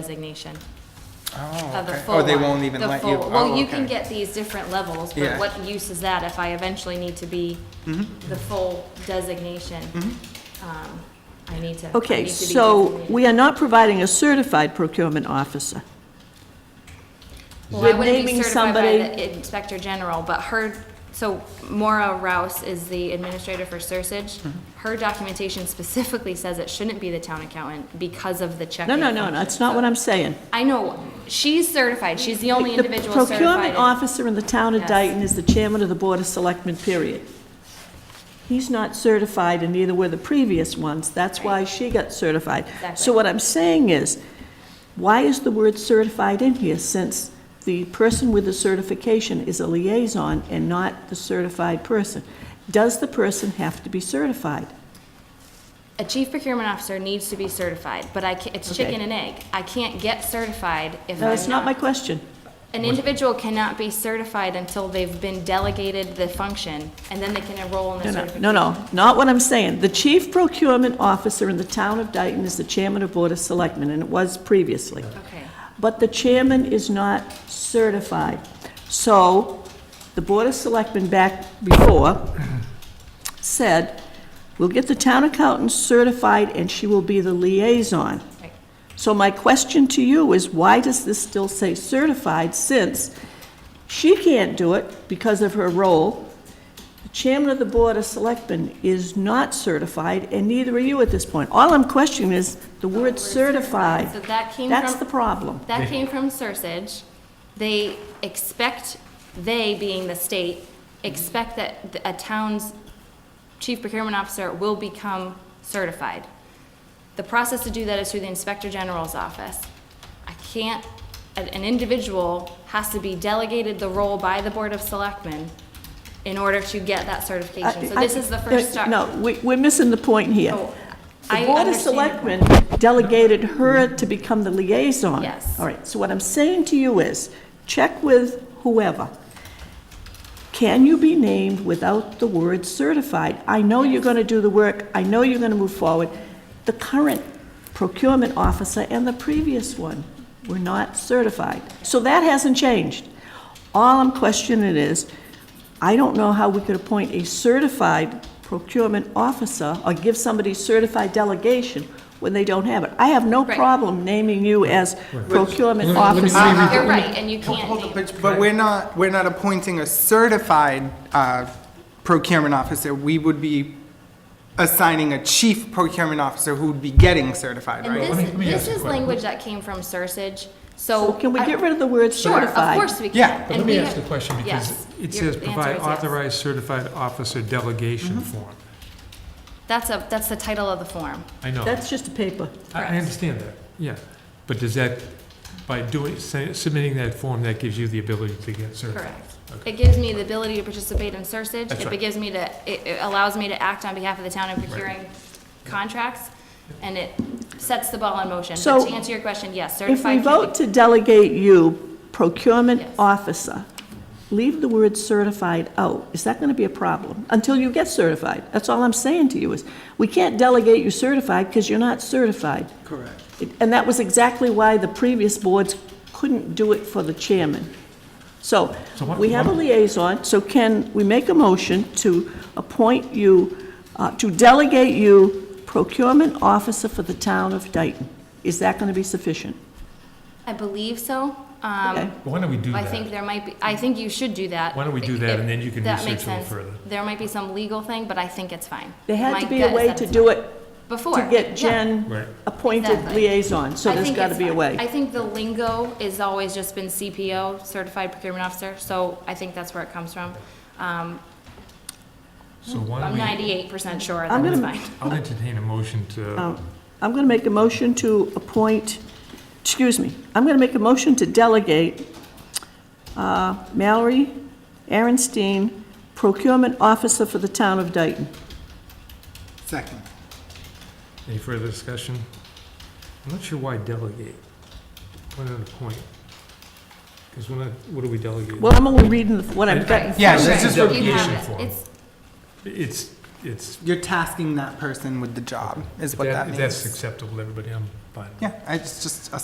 designation Oh, of the okay. full Oh, they one, won't even the let you? full- Well, oh, you can okay. get these different levels, but Yeah. Mm-hmm. what use is that if I eventually need to be the full designation? Um, I need to. I Okay, need to be so designated. we are not providing a certified procurement officer. Well, We're I wouldn't be naming certified by somebody- the Inspector General, but her, so Maura Rouse is the administrator for Sursage. Mm-hmm. Her documentation specifically says it shouldn't be the town accountant because of the checking. No, no, no, no, that's not what I'm saying. I know, she's certified, she's the only individual The certified. procurement in- officer in the town of Yes. Dayton is the chairman of the Board of Selectmen, period. He's not certified, and neither were the previous ones, that's why she got certified. Exactly. So what I'm saying is, why is the word certified in here, since the person with the certification is a liaison and not the certified person? Does the person have to be certified? A chief procurement officer needs to be certified, but I ca it's Okay. chicken and egg. I can't get certified if No, that's I'm not my not. question. An individual cannot be certified until they've been delegated the function, and then they can enroll in the No, no, certification. no, no, not what I'm saying. The chief procurement officer in the town of Dayton is the chairman of Board of Selectmen, and it was previously. Okay, But the chairman is not certified. So the Board of Selectmen back before said, we'll get the town accountant certified and she will be the liaison. right. So my question to you is, why does this still say certified, since she can't do it because of her role? The chairman of the Board of Selectmen is not certified, and neither are you at this point. All I'm questioning is the word So certified. that came That's the from, problem. that came from Sursage. They expect, they being the state, expect that th- a town's chief procurement officer will become certified. The process to do that is through the Inspector General's office. I can't, an an individual has to be delegated the role by the Board of Selectmen in order to get that certification. So I- this is the first start. No, we, we're missing the point here. Oh, The I Board of understand your point. Selectmen delegated her to become the liaison. Yes. All right, so what I'm saying to you is, check with whoever. Can you be named without the word certified? I know you're going to do the work, I know you're going to move forward. The current procurement officer and the previous one were not certified. So that hasn't changed. All I'm questioning is, I don't know how we could appoint a certified procurement officer or give somebody certified delegation when they don't have it. I have no Right. problem naming you as procurement Let me- let me- officer. let me- Uh, You're right, and you Hold- can't hold the name- pitch, But we're not, we're not appointing a certified uh, procurement officer. We would be assigning a chief procurement officer who would be getting certified, And right? let me- let me this, ask this you a is question. language that came from Sursage, So so. can we I- get rid of the word Sure, of certified? course we can. Yeah. But And let me we ask the have- question, yes, because it your- says the answer provide is yes. Mm-hmm. authorized certified officer delegation form. That's a, that's the title of the form. I know, I That's just a paper. I understand that, yeah. But does that, by doing, sa- submitting that form, that gives you the ability to get certified? Correct. Okay. It gives me the ability to participate in Sursage. That's It right. gives me to, it it allows me to act on behalf of the town in procuring contracts, and it sets the ball in motion. But So, to answer your question, yes, If we certified. can vote be- to delegate you procurement Yes. officer, leave the word certified out. Is that going to be a problem? Until you get certified. That's all I'm saying to you is, we can't delegate you certified because you're not certified. Correct. It- And that was exactly why the previous boards couldn't do it for the chairman. So, So what- we have a what- liaison, so can we make a motion to appoint you, uh, to delegate you procurement officer for the town of Dayton? Is that going to be sufficient? I believe so. Um, Okay. But Why don't we do I that? think there might be, I think you should do that. Why don't we do that, and then you can That research makes a little sense. further. There might be some legal thing, but I think it's fine. There had My to be gut a is way that to it's do it, Before. to get yeah. Right. Jen appointed Exactly. liaison, so I there's think got to it's be a fine. I way. think the lingo is always just been CPO, Certified Procurement Officer, so I think that's where it comes from. Um, So why don't I'm we? ninety-eight percent sure I'm that it's gonna- fine. I'll entertain a motion to, Oh. Um, I'm going to make a motion to appoint, excuse me, I'm going to make a motion to delegate uh, Mallory Aaronstein, procurement officer for the town of Dayton. Second. any further discussion? I'm not sure why delegate. What are the point? Because we're not, what are we delegating? Well, I'm only reading the- what I've got. Yeah, this Right. is You have reputation it. form. It's, It's, it's, You're tasking that person with the job, is if what that that- means. if that's acceptable, to everybody, I'm fine with it. Yeah, it's just a